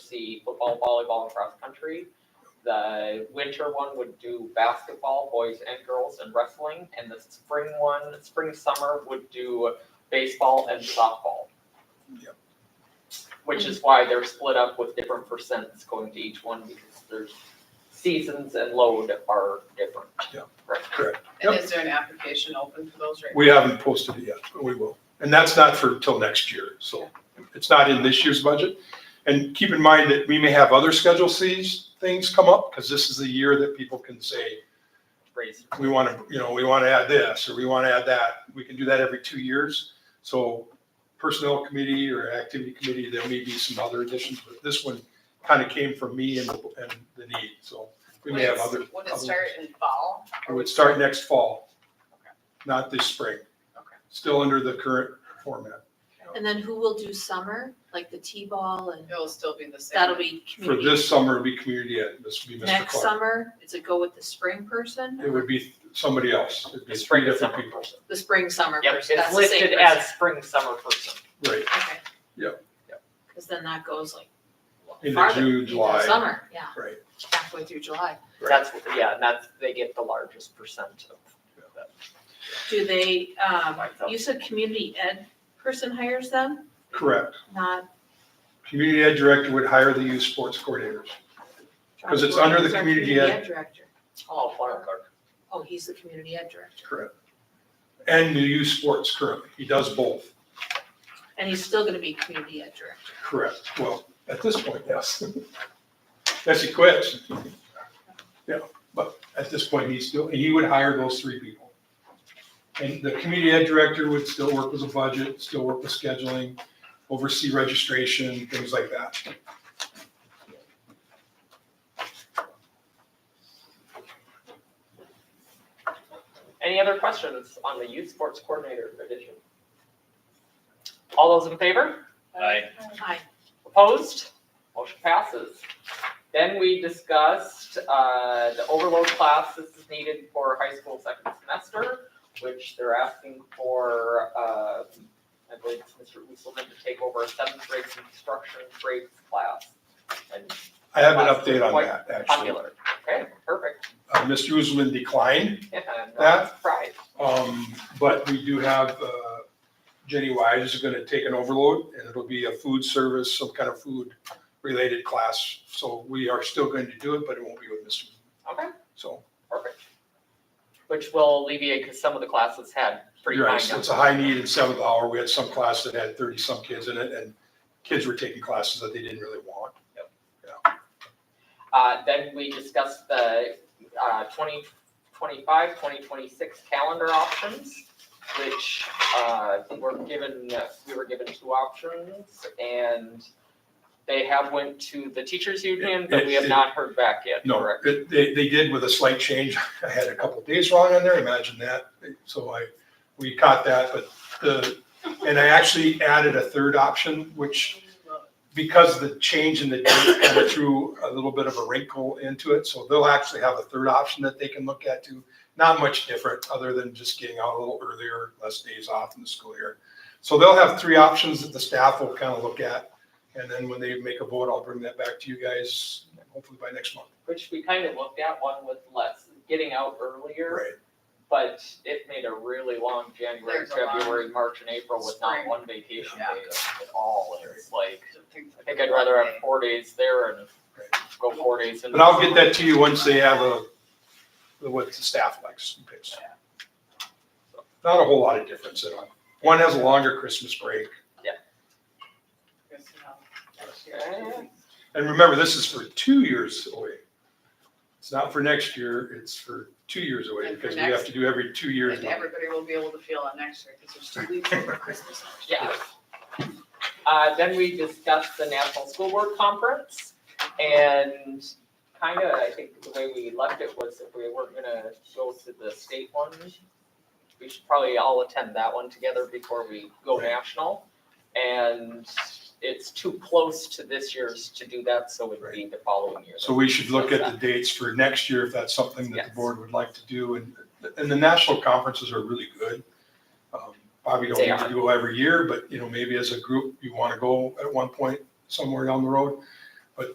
see football, volleyball, and cross country. The winter one would do basketball, boys and girls, and wrestling. And the spring one, spring summer would do baseball and softball. Yep. Which is why they're split up with different percents going to each one because there's seasons and load are different. Yep. Right. And is there an application open for those right now? We haven't posted it yet, but we will. And that's not for till next year, so it's not in this year's budget. And keep in mind that we may have other Schedule Cs things come up, because this is the year that people can say, Raise- we want to, you know, we want to add this, or we want to add that. We can do that every two years. So Personnel Committee or Activity Committee, there may be some other additions, but this one kind of came from me and, and the need, so we may have Would it- other. Would other it start in fall? It would start next fall, not this spring. Okay. Still under the current format. And then who will do summer, like the T-ball and It'll still be the same. that'll be For community. this summer, it'd be community ed, this would be Mr. Next Clark. summer, is it go with the spring person? It would be somebody else. It'd be The three spring and different summer people. person. The spring summer Yep, person, it's that's the same listed person. as spring summer person. Right, Okay. Yep. Cause then that goes like Into farther, June, into July. summer, yeah, right. halfway through July. Right. That's, what- yeah, and that's, they get the largest percent of that. Do they, um, Like that. you said community ed person hires them, Correct. not? Community ed director would hire the youth sports coordinators. 'Cause it's under the Who's our community ed. Director. Oh, Clark, Oh, he's the community ed director. Correct. And the youth sports currently. He does both. And he's still gonna be community ed director. Correct. Well, at this point, yes. Unless he quits. Yeah, but at this point, he's still, and he would hire those three people. And the community ed director would still work with the budget, still work with scheduling, oversee registration, things like that. Any other questions on the youth sports coordinator addition? All those in favor? Aye. Hi, Opposed? Motion passes. Then we discussed, uh, the overload class this is needed for high school second semester, which they're asking for, uh, I believe it's Mr. Uselman to take over a seventh grade construction grades class. And I have an update on that, actually. popular, okay, perfect, Uh, Mr. Usman declined yeah, I'm That- not surprised. Um, but we do have, uh, Jenny Wise is gonna take an overload and it'll be a food service, some kind of food related class. So we are still going to do it, but it won't be with Mr. Okay. So, Perfect. Which will alleviate, because some of the classes had pretty you're high right, it's numbers. a high need in seventh hour. We had some class that had thirty some kids in it and kids were taking classes that they didn't really want. Uh, then we discussed the, uh, 2025, 2026 calendar options, which, uh, were given, we were given two options, and they have went to the teachers union, but we have not heard back yet, No, correct? it- they, they did with a slight change. I had a couple days wrong on there, imagine that. So I, we caught that, but the, and I actually added a third option, which because the change in the date kind of threw a little bit of a wrinkle into it, so they'll actually have a third option that they can look at too. Not much different, other than just getting out a little earlier, less days off in the school year. So they'll have three options that the staff will kind of look at, and then when they make a vote, I'll bring that back to you guys, hopefully by next month. Which we kind of looked at, one was less, getting out earlier. Right. But it made a really long January, There's a lot. February, March and April with not Spring. one vacation Yeah. day at all. And It's like, I think I'd I'd rather have four days there and go four days in. But I'll get that to you once they have a, what the staff likes and picks. Not a whole lot of difference at all. One has a longer Christmas break, Yeah. And remember, this is for two years away. It's not for next year, it's for two years away And for because we have next- to do every two years. And everybody will be able to feel it next year because there's two weeks over Christmas. Yeah. Uh, then we discussed the National School Board Conference and kind of, I think the way we left it was if we weren't gonna go to the state one, we should probably all attend that one together before we go national. And it's too close to this year's to do that, so it'd be the following year. So we should look at the dates for next year if that's something that Yes. the board would like to do. And, and the national conferences are really good. Um, Probably don't They need to are. go every year, but you know, maybe as a group, you want to go at one point somewhere down the road.